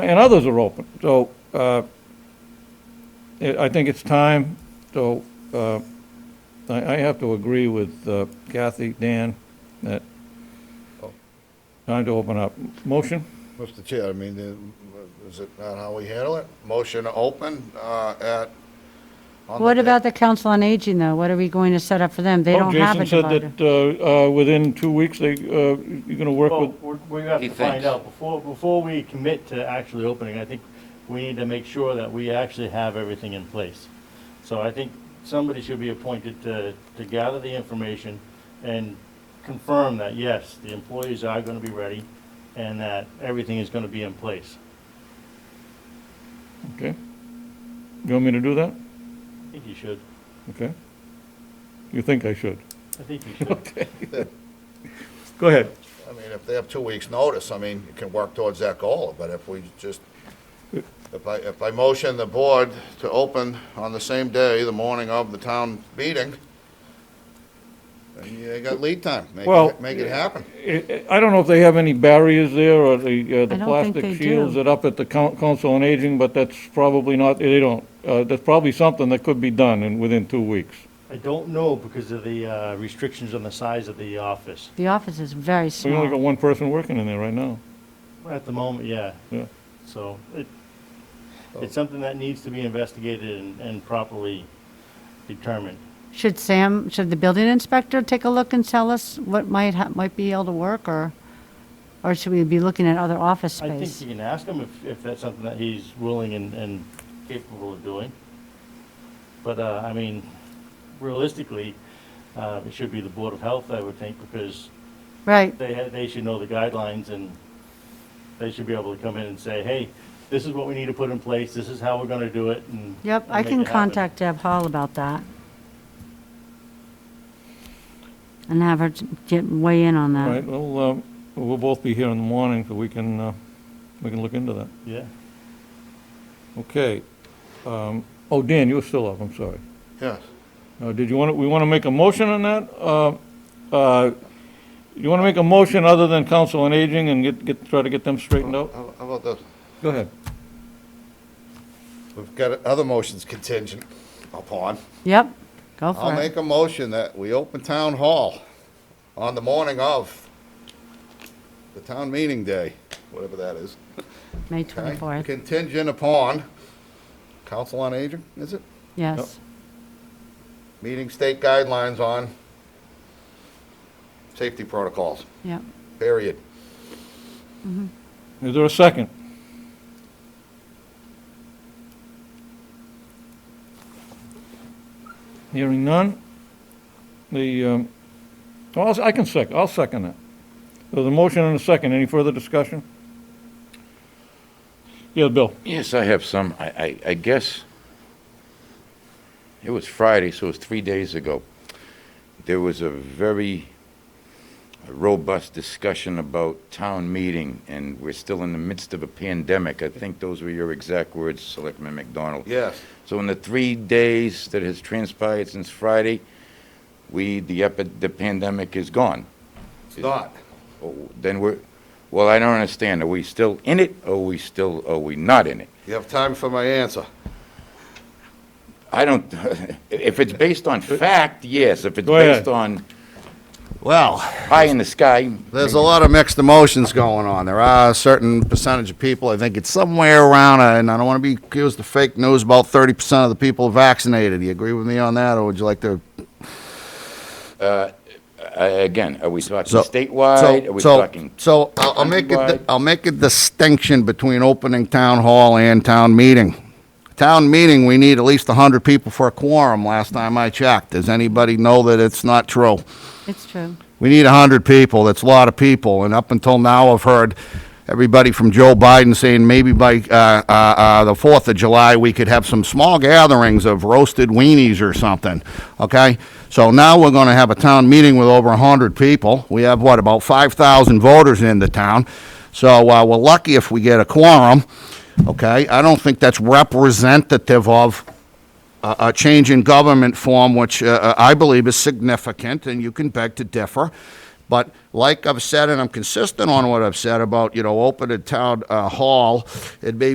and others are open. So uh, it- I think it's time, so uh, I I have to agree with uh, Kathy, Dan, that time to open up. Motion? Mr. Chair, I mean, uh, is it not how we handle it? Motion to open uh, at. on the What day- about the Council on Aging, though? What are we going to set up for them? They Oh, don't have a divider. Jason said that uh, uh, within two weeks, they, uh, you're going to work Well, with, we're- we have He to find thinks. out, before, before we commit to actually opening, I think we need to make sure that we actually have everything in place. So I think somebody should be appointed to, to gather the information and confirm that, yes, the employees are gonna be ready and that everything is gonna be in place. okay? You want me to do that? I think you should, Okay? You think I should? I think you should. Okay. Go ahead. I mean, if they have two weeks' notice, I mean, you can work towards that goal, but if we just, if I, if I motion the board to open on the same day, the morning of the town meeting, then you ain't got lead time. Make it- Well- Make it happen. I I don't know if they have any barriers there or the, uh, the I don't think plastic they shields do. that up at the coun- council on aging, but that's probably not, they don't. Uh, That's probably something that could be done in, within two weeks. I don't know because of the uh, restrictions on the size of the office. The office is very We only got small. one person working in there right now. At the moment, yeah. Yeah. So it, it's something that needs to be investigated and- and properly determined. Should Sam, should the building inspector take a look and tell us what might, ha- might be able to work, or, or should we be looking at other office I think space? you can ask him if, if that's something that he's willing and, and capable of doing. But, uh, I mean, realistically, uh, it should be the Board of Health, I would think, because Right, they, ha- they should know the guidelines and they should be able to come in and say, hey, this is what we need to put in place, this is how we're gonna do it and. yep, and I make can it happen. contact Deb Hall about that. And have her t- get, weigh in on All that. right, well, um, we'll both be here in the morning, so we can, uh, we can look into that. Yeah. Okay. Um, Oh, Dan, you were still up, I'm sorry. Yes. Uh, Did you want, to? we want to make a motion on that? Uh, uh, You want to make a motion other than council on aging and get, get, try to get them straightened out? How how about this? Go ahead. We've got other motions contingent upon. Yep, go I'll for it. make a motion that we open town hall on the morning of the town meeting day, whatever that is. May okay? 24th, Contingent upon council on aging, is it? yes. Meeting state guidelines on safety protocols, Yep, period. Is there a second? Hearing none. The, um, well, I'll- I can sec, I'll second that. There's a motion and a second. Any further discussion? Yeah, Bill. Yes, I have some. I, I, I guess it was Friday, so it was three days ago. There was a very robust discussion about town meeting, and we're still in the midst of a pandemic. I think those were your exact words, Selectman McDonald. Yes. So in the three days that has transpired since Friday, we, the epi- the pandemic is gone. It's not. Oh, Then we're, well, I don't understand. Are we still in it, or are we still, are we not in it? You have time for my answer. I don't, if it's based on fact, yes. If it's Go ahead. based on Well. pie in the sky, There's a lot of mixed emotions going on. There are a certain percentage of people, I think it's somewhere around, uh, and I don't want to be accused of fake news, about 30% of the people are vaccinated. You agree with me on that, or would you like to? uh, again, are we talking So- statewide? Are we so- talking? So I'll I'll make, a di- Countrywide? I'll make a distinction between opening town hall and town meeting. Town meeting, we need at least 100 people for a quorum, last time I checked. Does anybody know that it's not true? it's true. we need 100 people, that's a lot of people, and up until now, I've heard everybody from Joe Biden saying maybe by uh, uh, uh, the 4th of July, we could have some small gatherings of roasted weenies or something, okay? So now we're going to have a town meeting with over 100 people. We have, what, about 5,000 voters in the town, so uh, we're lucky if we get a quorum, okay? I don't think that's representative of a a change in uh, government form, which uh, I believe is significant, and you can beg to differ, but Like I've said, and I'm consistent on what I've said about, you know, open a town uh, hall, it may